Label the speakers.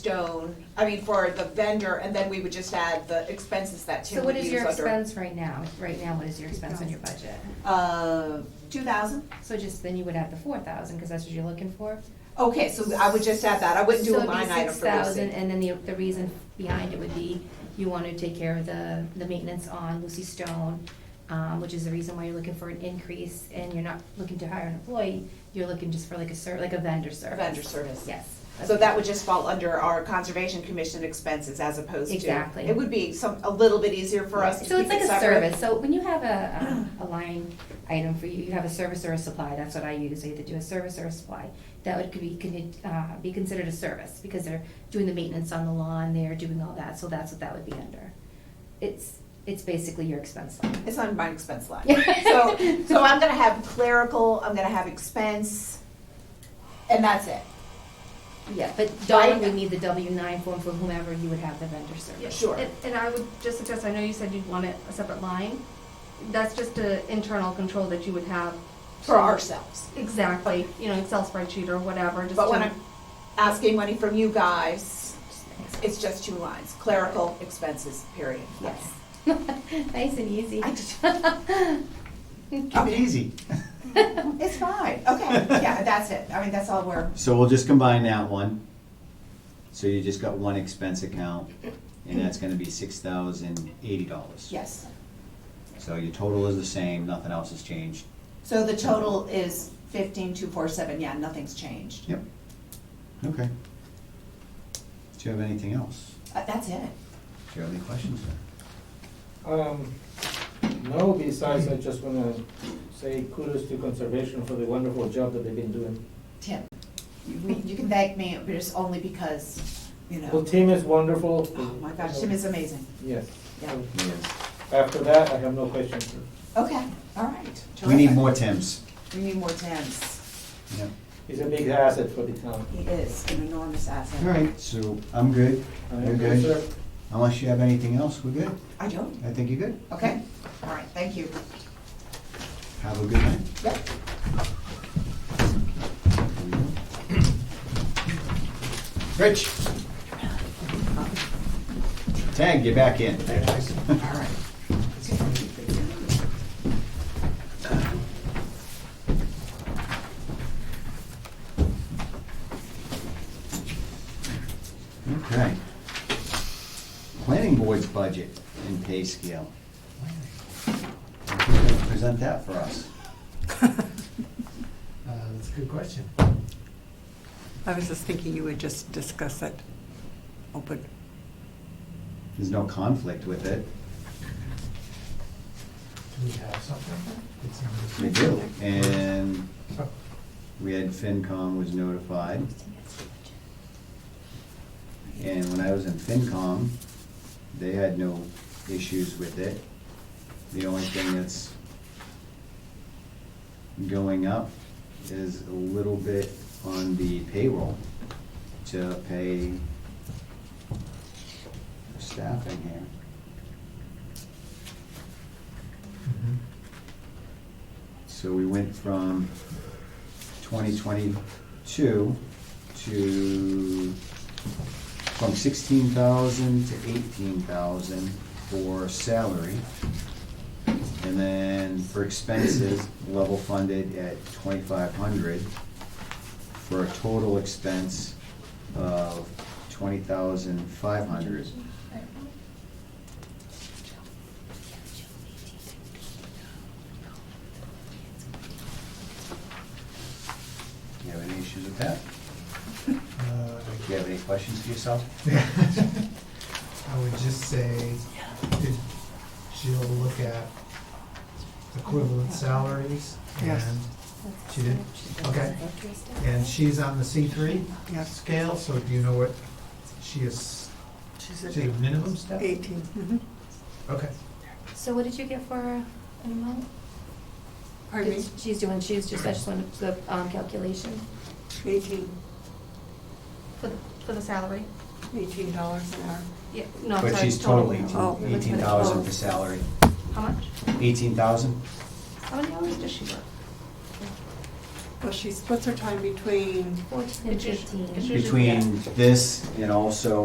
Speaker 1: stone, I mean, for the vendor, and then we would just add the expenses that
Speaker 2: So
Speaker 1: Tim
Speaker 2: what
Speaker 1: would use
Speaker 2: is
Speaker 1: under.
Speaker 2: your expense right now? Right now, what is your expense on your budget?
Speaker 1: Uh, two thousand?
Speaker 2: So just, then you would add the four thousand, because that's what you're looking for?
Speaker 1: Okay, so I would just add that, I wouldn't do
Speaker 2: So
Speaker 1: a
Speaker 2: it'd be
Speaker 1: line item for
Speaker 2: 6,000,
Speaker 1: Lucy.
Speaker 2: And then the, the reason behind it would be, you want to take care of the, the maintenance on Lucy Stone, um, which is the reason why you're looking for an increase, and you're not looking to hire an employee, you're looking just for like a ser, like a vendor service.
Speaker 1: Vendor service.
Speaker 2: Yes.
Speaker 1: So that would just fall under our conservation commission expenses as opposed to.
Speaker 2: Exactly.
Speaker 1: It would be some, a little bit easier for us to
Speaker 2: So
Speaker 1: keep
Speaker 2: it's like
Speaker 1: it
Speaker 2: a
Speaker 1: separate.
Speaker 2: service, so when you have a, um, a line item for you, you have a service or a supply, that's what I use, I either do a service or a supply. That would could be, con- uh, be considered a service, because they're doing the maintenance on the lawn, they're doing all that, so that's what that would be under. It's, it's basically your expense line.
Speaker 1: It's on my expense line. So, so I'm gonna have clerical, I'm gonna have expense, and that's it.
Speaker 2: Yeah, but Donna
Speaker 1: Right.
Speaker 2: would need the W nine form for whomever you would have the vendor service.
Speaker 1: Sure.
Speaker 3: And- And I would just suggest, I know you said you'd want it a separate line. That's just an internal control that you would have.
Speaker 1: For ourselves.
Speaker 3: Exactly, you know, Excel spreadsheet or whatever, just
Speaker 1: But when
Speaker 3: to-
Speaker 1: I'm asking money from you guys, it's just two lines, clerical expenses, period.
Speaker 2: Yes. Nice and easy.
Speaker 1: I just-
Speaker 4: Keep it easy.
Speaker 1: It's fine, okay, yeah, that's it, I mean, that's all we're,
Speaker 4: So we'll just combine that one. So you just got one expense account, and that's gonna be six thousand eighty dollars.
Speaker 1: yes.
Speaker 4: So your total is the same, nothing else has changed.
Speaker 1: So the total is fifteen, two, four, seven, yeah, nothing's changed.
Speaker 4: Yep. Okay. Do you have anything else?
Speaker 1: Uh, That's it.
Speaker 4: Do you have any questions there?
Speaker 5: Um, no, besides, I just wanna say kudos to conservation for the wonderful job that they've been doing.
Speaker 1: Tim, you you can thank me, but it's only because, you
Speaker 5: The
Speaker 1: know,
Speaker 5: team is wonderful.
Speaker 1: oh my gosh, Tim is amazing.
Speaker 5: Yes.
Speaker 1: Yeah.
Speaker 5: After that, I have no questions.
Speaker 1: Okay, all right.
Speaker 4: We need
Speaker 1: terrific.
Speaker 4: more Tims.
Speaker 1: We need more Tims.
Speaker 4: Yep.
Speaker 5: He's a big asset for the town.
Speaker 1: He is an enormous asset.
Speaker 4: All right, so I'm good.
Speaker 5: I
Speaker 4: You're
Speaker 5: am
Speaker 4: good.
Speaker 5: sir.
Speaker 4: Unless you have anything else, we're good.
Speaker 1: I don't,
Speaker 4: I think you're good.
Speaker 1: okay, all right, thank you.
Speaker 4: Have a good night.
Speaker 1: Yep.
Speaker 4: Rich. Tag, get back in. Okay. Planning board's budget and pay scale. Present that for us.
Speaker 6: Uh, That's a good question.
Speaker 7: I was just thinking you would just discuss it open.
Speaker 4: There's no conflict with it.
Speaker 6: Do we have something? It's in
Speaker 4: We
Speaker 6: the-
Speaker 4: do. And
Speaker 6: Oh,
Speaker 4: we had FinCom was notified. And when I was in FinCom, they had no issues with it. The only thing that's going up is a little bit on the payroll to pay staff in here.
Speaker 6: mhm.
Speaker 4: So we went from twenty twenty-two to, from sixteen thousand to eighteen thousand for salary. And then for expenses, level funded at twenty-five hundred for a total expense of twenty thousand five hundred. You have any issues with that?
Speaker 6: Uh,
Speaker 4: Do you have any questions for yourself?
Speaker 6: I would just say, did Jill look at equivalent salaries?
Speaker 7: Yes.
Speaker 6: and- She did? Okay. And she's on the C three
Speaker 7: Yes.
Speaker 6: scale, so do you know what she is,
Speaker 7: She's
Speaker 6: she's a minimum step?
Speaker 7: Eighteen, mhm.
Speaker 6: Okay.
Speaker 2: So what did you get for an amount?
Speaker 7: pardon me,
Speaker 2: She's doing, she's just, I just wanted the, um, calculation.
Speaker 7: eighteen,
Speaker 3: for, the- for the salary.
Speaker 7: eighteen dollars an hour.
Speaker 3: Yeah, no, I'm
Speaker 4: But
Speaker 3: sorry,
Speaker 4: she's totally
Speaker 7: Oh,
Speaker 4: eighteen,
Speaker 7: that's
Speaker 4: eighteen
Speaker 7: what it
Speaker 4: thousand
Speaker 7: was.
Speaker 4: for salary.
Speaker 3: How much?
Speaker 4: Eighteen thousand?
Speaker 3: How many hours does she work?
Speaker 7: Well, she splits her time between
Speaker 2: Fourteen and fifteen.
Speaker 3: It's usually-
Speaker 4: between this and also